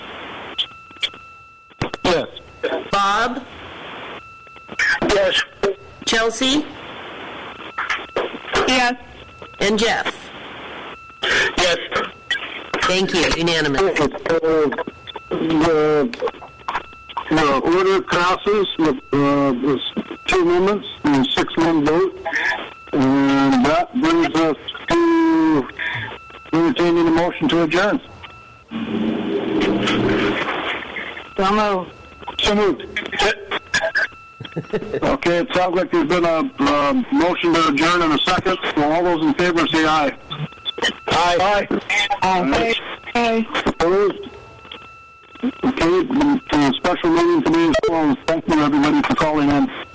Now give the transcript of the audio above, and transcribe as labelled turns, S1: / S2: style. S1: Bob,
S2: Yes.
S1: Chelsea,
S2: Yes.
S1: and Jeff.
S2: Yes.
S1: Thank you, unanimous.
S2: The the order passes with uh, this two amendments and six-one vote. And that brings us to entertaining a motion to adjourn. So moved. So Okay, it sounds like there's been a uh, motion to adjourn in a second. So all those in favor say aye. Aye. Aye. Aye. Opposed? um, uh, Okay, the special meeting today is closed. Thank you, everybody, for calling in.